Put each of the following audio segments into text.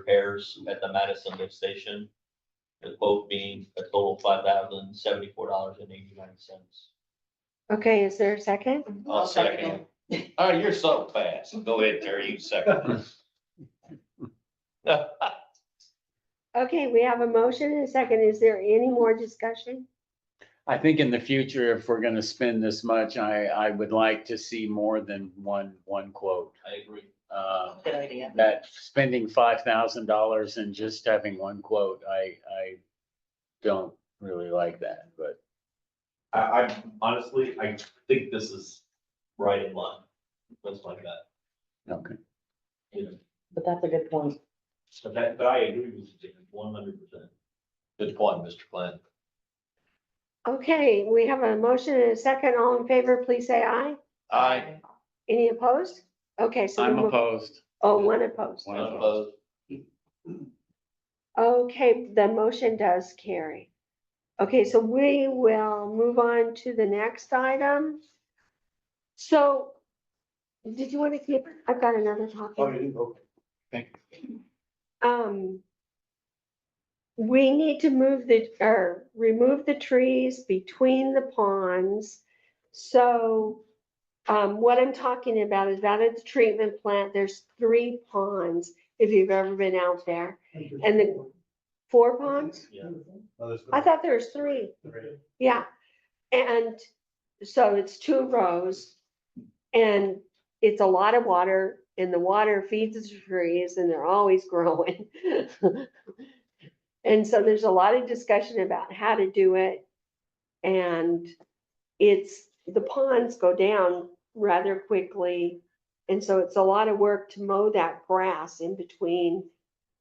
repairs at the Madison lift station. The quote being a total five thousand seventy-four dollars and eighty-nine cents. Okay, is there a second? I'll second it. Oh, you're so fast. Go ahead, Terry, you second. it. Okay, we have a motion and a second. Is there any more discussion? I think in the future, if we're gonna spend this much, I, I would like to see more than one, one quote. I agree. Uh, Good idea. That spending five thousand dollars and just having one quote, I, I don't really like that, but I, I honestly, I think this is right in line, that's like that. okay. But that's a good point. But that, but I agree with you, one hundred percent. Good point, Mr. Glenn. Okay, we have a motion and a second. All in favor, please say aye. Aye. Any opposed? Okay, so. I'm we move- opposed. Oh, one opposed. One opposed. Opposed? Okay, the motion does carry. Okay, so we will move on to the next item. So, did you want to keep, I've got another Oh, Oh, topic. okay. Um, we need to move the, or remove the trees between the ponds. So, um, what I'm talking about is that at the treatment plant, there's three ponds, if you've ever been out there. And the four ponds? Yeah. I thought there was three, yeah. And so it's two rows. And it's a lot of water and the water feeds the trees and they're always growing. And so there's a lot of discussion about how to do it. And it's, the ponds go down rather quickly. And so it's a lot of work to mow that grass in between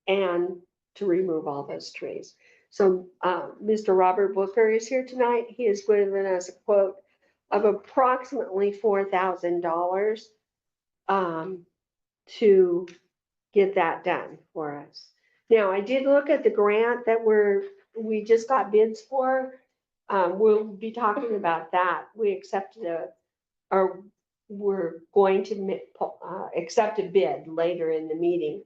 and to remove all those trees. So uh, Mr. Robert Booker is here tonight. He has given us a quote of approximately four thousand dollars um, to get that done for us. Now, I did look at the grant that we're, we just got bids for. Um, We'll be talking about that. We accepted a, or we're going to mi- po- uh, accept a bid later in the meeting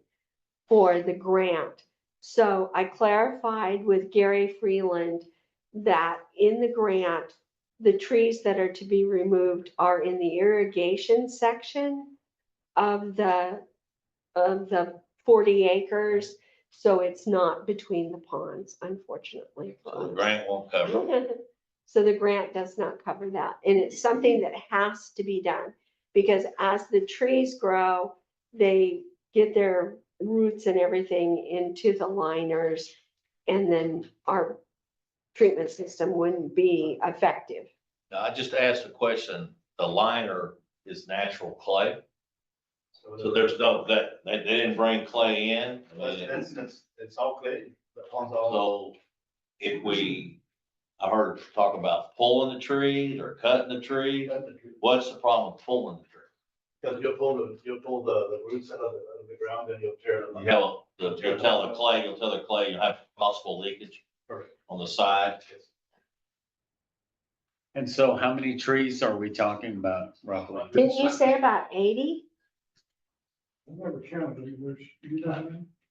for the grant. So I clarified with Gary Freeland that in the grant, the trees that are to be removed are in the irrigation section of the, of the forty acres. So it's not between the ponds, unfortunately. The grant won't cover. it. So the grant does not cover that, and it's something that has to be done, because as the trees grow, they get their roots and everything into the liners, and then our treatment system wouldn't be effective. Now, I just asked a question. The liner is natural clay, so there's no, that, they they didn't bring clay in. I mean, it's all clear, the ponds are all- So if we, I heard talk about pulling the trees or cutting the tree, what's the problem with pulling the tree? Because you'll pull the, you'll pull the, the roots out of the, out of the ground and you'll tear them. You know, the- you'll tell the clay, you'll tell the clay, you'll have possible leakage Correct. on the side. And so how many trees are we talking about roughly? Didn't you say about eighty? I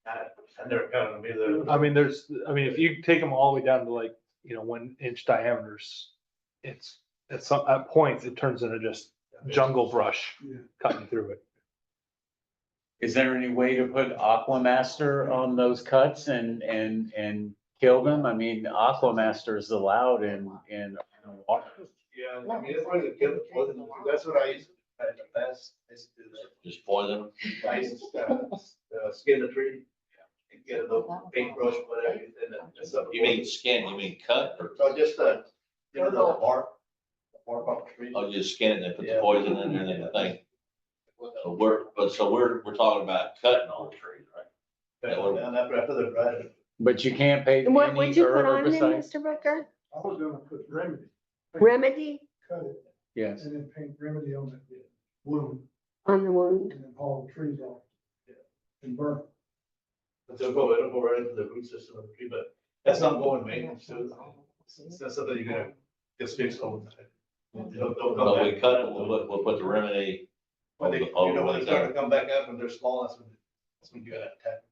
I never counted them either. I mean, there's, I mean, if you take them all the way down to like, you know, one inch diameters, it's, at some, at points, it turns into just jungle brush cutting through it. Is there any way to put Aquamaster on those cuts and, and, and kill them? I mean, Aquamaster is allowed in, in water. Yeah, I mean, that's why they kill the poison, that's what I used to, do in the past, is to do that. Just poison them. I used to uh, s- uh, skin the tree and get a little paintbrush, whatever, and then it's up. You mean skin, you mean cut or, So just uh you know, the bark, the bark off the tree. oh, you just skin it and put the Yeah. poison in there and everything. So we're, but so we're, we're talking about cutting all the trees, right? And after, after the ride. But you can't pay And any what would you put on there, herbicide. Mr. Booker? I was gonna put remedy, Remedy cut it, Yes, and then paint remedy on that wound, on the wound. and then haul the trees off. And burn. it. It'll go, it'll go right into the root system of the tree, but that's not going maintenance, so it's- it's not something you're gonna just fix all the Mm-hmm. time. They'll- they'll come So we back. cut it, we'll, put- we'll put the remedy When they, you know, when they start to come back up and they're small, that's when, that's when you gotta attack.